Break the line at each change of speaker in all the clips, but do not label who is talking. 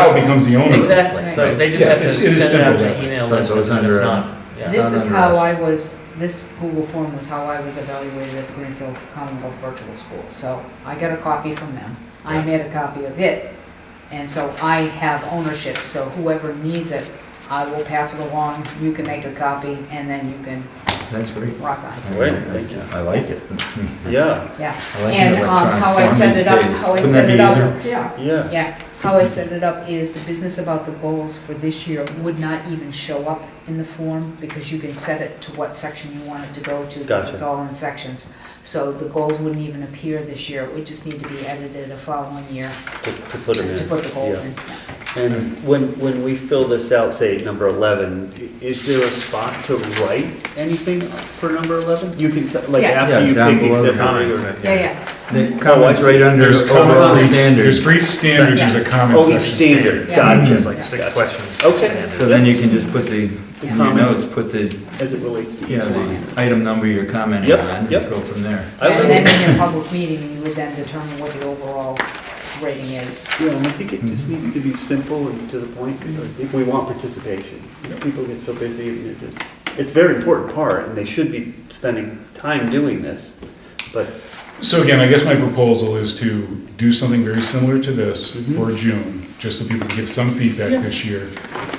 Now it becomes the owner.
Exactly, so
Right.
they just
Yeah,
have to
it's- it
send
is
it out
simple,
to
yeah.
email
So
list,
it's
and it's
under-
uh,
not, yeah.
This is
Not
how
under
I was, this Google form was how I was evaluated at the Greenfield Commonwealth Virtual School. So I got a copy from them. I
Yeah.
made a copy of it. And so I have ownership, so whoever needs it, I will pass it along. You can make a copy and then you can
That's great.
rock on.
I-
Great,
I-
thank you.
I like it.
Yeah,
Yeah.
I like
And
the
um, how I
electronic
set it up,
form these
how I
Wouldn't
set
that
it
be
up.
easier?
Yeah.
yeah.
Yeah, how I set it up is the business about the goals for this year would not even show up in the form because you can set it to what section you want it to go to. 'cause
Gotcha.
It's all in sections. So the goals wouldn't even appear this year. It would just need to be edited the following year
To to put them in.
to put the goals
yeah.
in.
And when, when we fill this out, say at number 11, i- is there a spot to write anything for number 11? You can, t- like,
Yeah.
after you
down
pick
below the
exhibit
comments.
or...
Yeah, yeah,
The comments right under
There's
overall
comments, there's
standards.
for each standard, there's a comment
Oh, each
section.
standard,
Yeah.
gotcha.
Mhm. Like six
Gotcha.
questions.
Okay.
So then you can just put the,
The
in your
comment.
notes, put the,
As it relates to
you
each
know,
line.
the item number you're commenting
Yep,
on, and
yep.
go from there.
I like
And then
it.
in your public meeting, you would then determine what the overall rating is.
Yeah, and I think it just
Mm-hmm.
needs to be simple and to the point, because I think we want participation. People get so busy, and it just, it's a very important part, and they should be spending time doing this, but
So again, I guess my proposal is to do something very similar to this
Mhm.
for June, just so people can give some feedback
Yeah.
this year.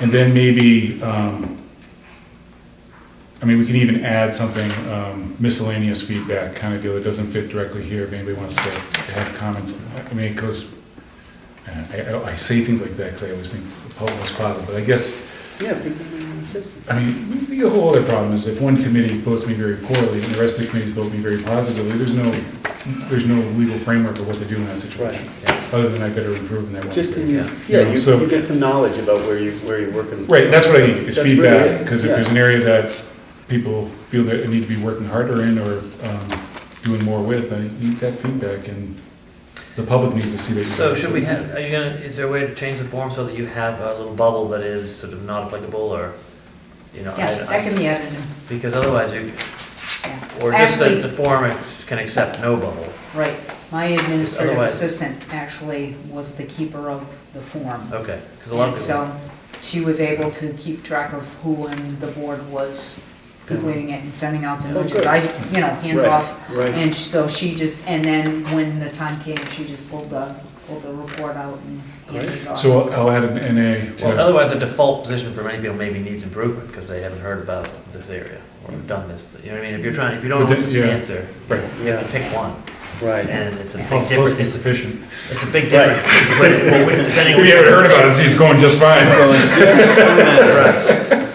And then maybe, um, I mean, we can even add something um, miscellaneous feedback kind of deal that doesn't fit directly here, if anybody wants to have comments. I mean, because, I, I- I say things like that because I always think the public was positive, but I guess
yeah, people may want to say something.
I mean, the whole other problem is if one committee votes me very poorly and the rest of the committees vote me very positively, there's no, there's no legal framework of what to do in that situation. Other than I better improve in that one.
Just in
area.
your, yeah,
know,
you,
so-
you get some knowledge about where you, where you're working.
Right, that's what I need, is
That's really it,
feedback, because if
yeah.
there's an area that people feel that they need to be working harder in or um, doing more with, I need that feedback and the public needs to see that.
So should we have, are you gonna, is there a way to change the form so that you have a little bubble that is sort of not applicable or, you know? I-
Yeah, that can be edited,
Because otherwise you,
yeah.
or just that
Actually-
the form ex- can accept no bubble.
Right. My administrative
Otherwise-
assistant actually was the keeper of the form.
Okay, because a lot
And
of people,
so she was able to keep track of who and the board was completing it and sending out the
Oh,
notices.
good.
I, you know, hands
Right,
off.
Right,
And so she just, and then when the time came, she just pulled the, pulled the report out and handed it off.
So I'll I'll add an NA to
well,
that.
otherwise the default position for many people maybe needs improvement because they haven't heard about this area or done this. You know what I mean? If you're trying, if you don't
But
know
then-
this
yeah.
answer, you
Right.
have to pick one.
right.
And it's a
Oh,
big
it's supposed to be
difference,
sufficient.
it's a big difference. But- but Depending on.
We haven't heard about it, see, it's going just fine.
Right.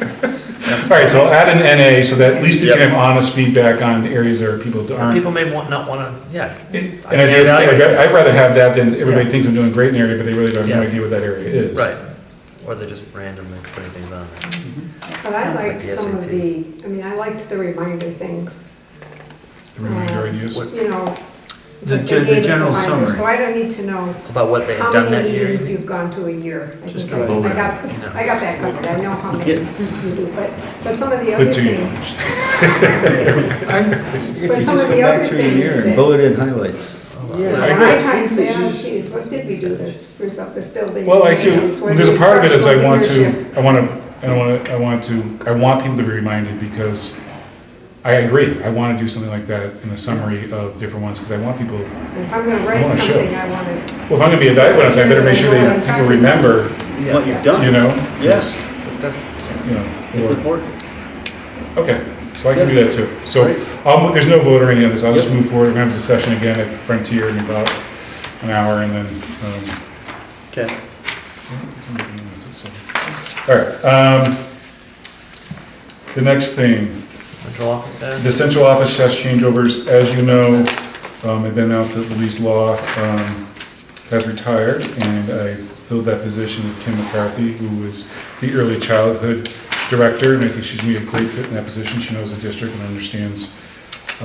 All right, so I'll add an NA so that at least you can have honest feedback on areas that people aren't.
People may want, not wanna, yeah.
And
I
I
think
do
that's
that, like,
fair.
I- I'd rather have that than everybody
Yeah.
thinks I'm doing great in the area, but they really don't have no
Yeah.
idea what that area is.
Right, or they're just randomly putting things on there.
But I liked
Like the
some of the,
SAT.
I mean, I liked the reminder things,
The Reminder ideas.
you know.
The
that they
gen- the
gave us
general
reminders.
summary.
So I don't need to know
About what they have
how
done that
many
year. you
meetings
think?
you've gone to a year. I
Just
think
a
I I
bullet.
got,
No.
I got that covered, I know how many
Yeah.
you do, but, but some of the other
But do you?
things.
If you
But
just
some of
go
the
back
other
through a
things
year and
that-
bulleted highlights.
Yeah.
I
When
agree.
I time say, oh geez, what did we do to spruce up this building?
Well, I
You know,
do,
it's where
there's
the
a part of it is I
instructional
want to,
leadership-
I want to, I want to, I want to, I want people to be reminded because I agree, I want to do something like that in the summary of different ones, because I want people, well,
If I'm gonna
I wanna
write
show.
something, I wanna.
if I'm going to be evaluated, on something, I better make sure that people remember,
What you've done.
you know?
Yes,
You know,
it's
or-
important.
Okay, so I can do that too. So
Great.
I'll, mo- there's no vote or any of this, I'll just
Yep.
move forward, we're gonna have a discussion again at Frontier in about an hour and then, um,
Okay.
all right. um, The next thing,
Central office there?
the central office test changeovers, as you know, um, have been announced that Louise Law um, has retired, and I filled that position with Kim McCarthy, who is the early childhood director, and I think she's going to be a great fit in that position. She knows the district and understands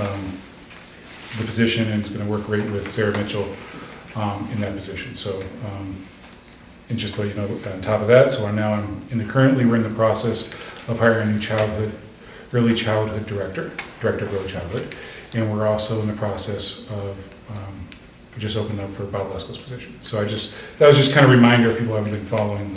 um, the position, and is going to work great with Sarah Mitchell um, in that position. So, um, and just to let you know, on top of that, so now I'm, in the, currently, we're in the process of hiring a new childhood early childhood director, director of early childhood, and we're also in the process of um, just opened up for Bob Lesko's position. So I just, that was just kind of a reminder if people haven't been following